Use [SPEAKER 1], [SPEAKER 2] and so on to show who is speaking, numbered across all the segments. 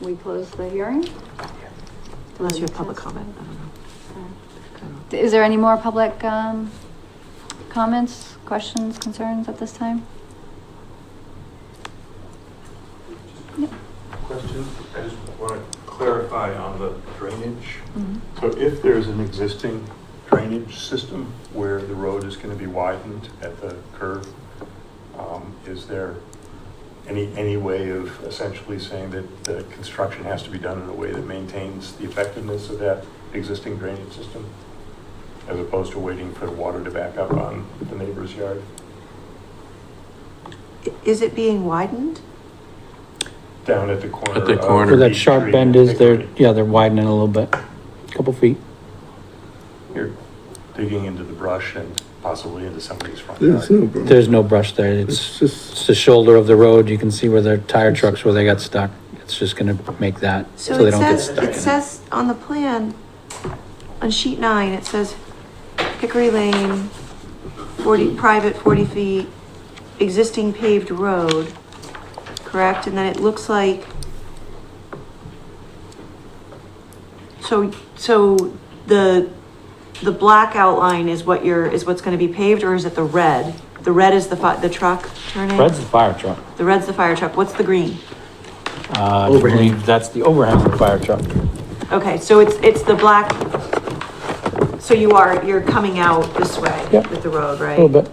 [SPEAKER 1] we close the hearing?
[SPEAKER 2] Unless you have public comment, I don't know. I don't know.
[SPEAKER 1] Is there any more public, um, comments, questions, concerns at this time?
[SPEAKER 3] Question, I just want to clarify on the drainage. So if there's an existing drainage system where the road is going to be widened at the curve, um, is there any, any way of essentially saying that the construction has to be done in a way that maintains the effectiveness of that existing drainage system? As opposed to waiting for the water to back up on the neighbor's yard?
[SPEAKER 4] I- Is it being widened?
[SPEAKER 3] Down at the corner.
[SPEAKER 5] At the
[SPEAKER 3] of
[SPEAKER 5] corner.
[SPEAKER 6] Where that
[SPEAKER 3] Beach
[SPEAKER 6] sharp
[SPEAKER 3] Street
[SPEAKER 6] bend
[SPEAKER 3] and
[SPEAKER 6] is, they're,
[SPEAKER 3] Hickory.
[SPEAKER 6] yeah, they're widening a little bit, couple feet.
[SPEAKER 3] You're digging into the brush and possibly into somebody's front yard.
[SPEAKER 7] There's no problem.
[SPEAKER 6] There's no brush there,
[SPEAKER 7] It's
[SPEAKER 6] it's,
[SPEAKER 7] just,
[SPEAKER 6] it's the shoulder of the road, you can see where their tire trucks, where they got stuck. It's just gonna make that, so
[SPEAKER 4] So
[SPEAKER 6] they
[SPEAKER 4] it
[SPEAKER 6] don't get
[SPEAKER 4] says,
[SPEAKER 6] stuck.
[SPEAKER 4] it says on the plan, on sheet nine, it says Hickory Lane, forty, private forty feet, existing paved road, correct? And then it looks like. So, so the, the black outline is what you're, is what's gonna be paved, or is it the red? The red is the fi, the truck turning?
[SPEAKER 6] Red's the fire truck,
[SPEAKER 4] The red's the fire truck, what's the green?
[SPEAKER 6] uh, I believe that's the overhang of the fire truck.
[SPEAKER 4] Okay, so it's, it's the black, so you are, you're coming out this way
[SPEAKER 6] Yep.
[SPEAKER 4] with the road,
[SPEAKER 6] A
[SPEAKER 4] right?
[SPEAKER 6] little bit,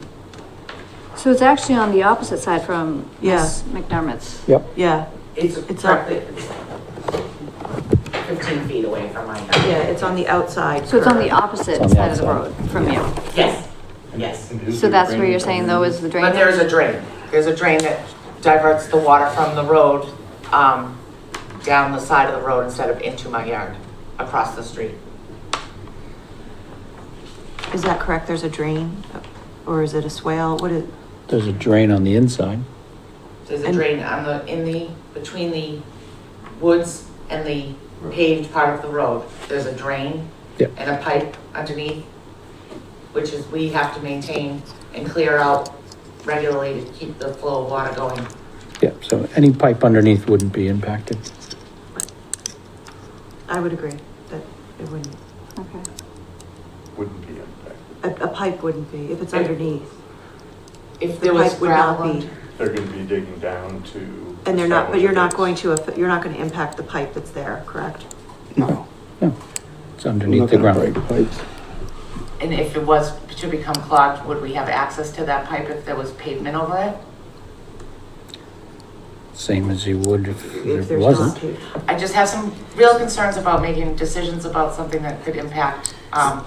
[SPEAKER 1] So it's actually on the opposite side from
[SPEAKER 4] Yeah.
[SPEAKER 1] Miss McDermott's.
[SPEAKER 6] yep.
[SPEAKER 4] Yeah,
[SPEAKER 8] It's
[SPEAKER 4] It's up.
[SPEAKER 8] directly fifteen feet away from my house.
[SPEAKER 4] yeah, it's on the outside.
[SPEAKER 1] So it's on the
[SPEAKER 4] curve.
[SPEAKER 1] opposite
[SPEAKER 6] It's on the
[SPEAKER 1] side of the road
[SPEAKER 6] outside.
[SPEAKER 1] from you.
[SPEAKER 8] Yes, yes.
[SPEAKER 3] And is
[SPEAKER 1] So
[SPEAKER 3] there
[SPEAKER 1] that's where
[SPEAKER 3] drainage
[SPEAKER 1] you're saying though is the drainage?
[SPEAKER 8] But there is a drain. There's a drain that diverts the water from the road, um, down the side of the road instead of into my yard, across the street.
[SPEAKER 4] Is that correct? There's a drain, or is it a swale? What is,
[SPEAKER 6] There's a drain on the inside.
[SPEAKER 8] There's a
[SPEAKER 4] And-
[SPEAKER 8] drain on the, in the, between the woods and the paved part of the road. There's a drain
[SPEAKER 6] Yep.
[SPEAKER 8] and a pipe underneath, which is, we have to maintain and clear out regularly to keep the flow of water going.
[SPEAKER 6] Yep, so any pipe underneath wouldn't be impacted.
[SPEAKER 4] I would agree that it wouldn't,
[SPEAKER 1] Okay.
[SPEAKER 3] Wouldn't be impacted.
[SPEAKER 4] a, a pipe wouldn't be, if it's underneath.
[SPEAKER 8] If
[SPEAKER 4] The
[SPEAKER 8] there was
[SPEAKER 4] pipe would not
[SPEAKER 8] gravel
[SPEAKER 4] be,
[SPEAKER 8] and
[SPEAKER 3] They're gonna be digging down to.
[SPEAKER 4] And they're not, but you're not going
[SPEAKER 3] establish
[SPEAKER 4] to, aff- you're not gonna impact the pipe that's there, correct?
[SPEAKER 7] no.
[SPEAKER 6] No, it's
[SPEAKER 7] I'm not
[SPEAKER 6] underneath the
[SPEAKER 7] gonna
[SPEAKER 6] ground.
[SPEAKER 7] break pipes.
[SPEAKER 8] And if it was to become clogged, would we have access to that pipe if there was pavement over it?
[SPEAKER 6] Same as you would if
[SPEAKER 4] If
[SPEAKER 6] there
[SPEAKER 4] there's not
[SPEAKER 6] wasn't.
[SPEAKER 4] paved.
[SPEAKER 8] I just have some real concerns about making decisions about something that could impact, um,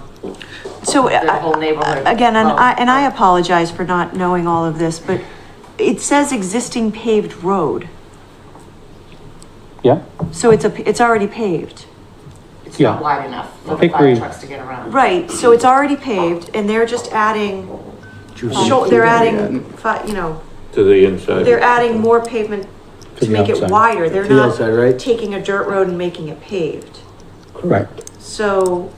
[SPEAKER 4] So,
[SPEAKER 8] the
[SPEAKER 4] I-
[SPEAKER 8] whole neighborhood. Oh,
[SPEAKER 4] again, and
[SPEAKER 8] of-
[SPEAKER 4] I, and I apologize for not knowing all of this, but it says existing paved road.
[SPEAKER 6] Yeah,
[SPEAKER 4] So it's a, it's already paved.
[SPEAKER 8] It's not
[SPEAKER 6] yeah.
[SPEAKER 8] wide enough for the fire
[SPEAKER 6] Hickory-
[SPEAKER 8] trucks to get around.
[SPEAKER 4] Right, so it's already paved and they're just adding, shou- they're adding, fi- you know,
[SPEAKER 5] To the inside.
[SPEAKER 4] they're adding more pavement
[SPEAKER 6] To
[SPEAKER 4] to
[SPEAKER 6] the
[SPEAKER 4] make it
[SPEAKER 6] outside.
[SPEAKER 4] wider. They're
[SPEAKER 7] To the outside,
[SPEAKER 4] not
[SPEAKER 7] right?
[SPEAKER 4] taking a dirt road and making it paved.
[SPEAKER 6] Right.
[SPEAKER 4] So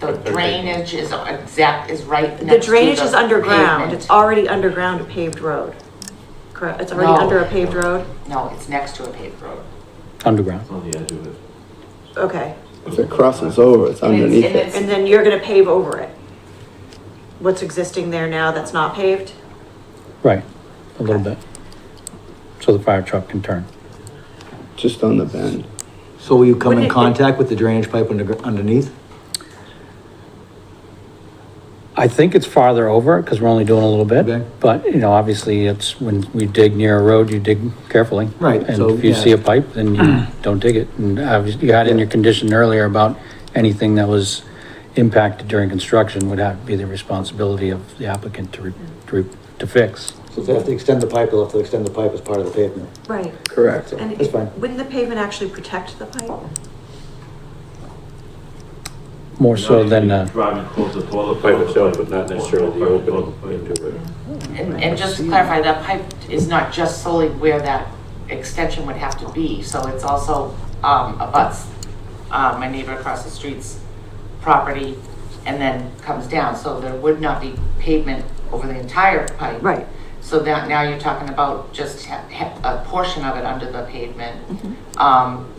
[SPEAKER 8] The drainage is exact, is right next to
[SPEAKER 4] the drainage is underground.
[SPEAKER 8] pavement.
[SPEAKER 4] It's already underground a paved road. Correct, it's already
[SPEAKER 8] No.
[SPEAKER 4] under a paved road?
[SPEAKER 8] No, it's next to a paved road.
[SPEAKER 6] Underground.
[SPEAKER 5] On the edge of it.
[SPEAKER 4] Okay,
[SPEAKER 7] If it crosses over, it's
[SPEAKER 8] And it's-
[SPEAKER 7] underneath
[SPEAKER 8] and
[SPEAKER 7] it.
[SPEAKER 8] it's-
[SPEAKER 4] and then you're gonna pave over it? What's existing there now that's not paved?
[SPEAKER 6] Right, a little bit. So the fire truck can turn.
[SPEAKER 7] Just on the bend.
[SPEAKER 9] So will you come
[SPEAKER 4] Wouldn't
[SPEAKER 9] in
[SPEAKER 4] it-
[SPEAKER 9] contact with the drainage pipe under- underneath?
[SPEAKER 6] I think it's farther over because we're only doing a little
[SPEAKER 9] Okay.
[SPEAKER 6] bit. But, you know, obviously it's when we dig near a road, you dig carefully.
[SPEAKER 9] Right,
[SPEAKER 6] And
[SPEAKER 9] so,
[SPEAKER 6] if you
[SPEAKER 9] yeah.
[SPEAKER 6] see a pipe, then you don't dig it. And obviously you had in your condition earlier about anything that was impacted during construction would have to be the responsibility of the applicant to, re- to, re- to fix.
[SPEAKER 9] So if they have to extend the pipe, they'll have to extend the pipe as part of the pavement.
[SPEAKER 4] Right.
[SPEAKER 7] Correct.
[SPEAKER 4] And
[SPEAKER 9] That's
[SPEAKER 4] it-
[SPEAKER 9] fine.
[SPEAKER 4] wouldn't the pavement actually protect the pipe?
[SPEAKER 6] More so than, uh,
[SPEAKER 10] Driving close to toilet.
[SPEAKER 5] Pipe itself, but not necessarily the opening into it.
[SPEAKER 8] And, and just to clarify, that pipe is not just solely where that extension would have to be, so it's also, um, abuts, uh, my neighbor across the street's property and then comes down, so there would not be pavement over the entire pipe.
[SPEAKER 4] Right.
[SPEAKER 8] So that, now you're talking about just ha- ha- a portion of it under the pavement. Um,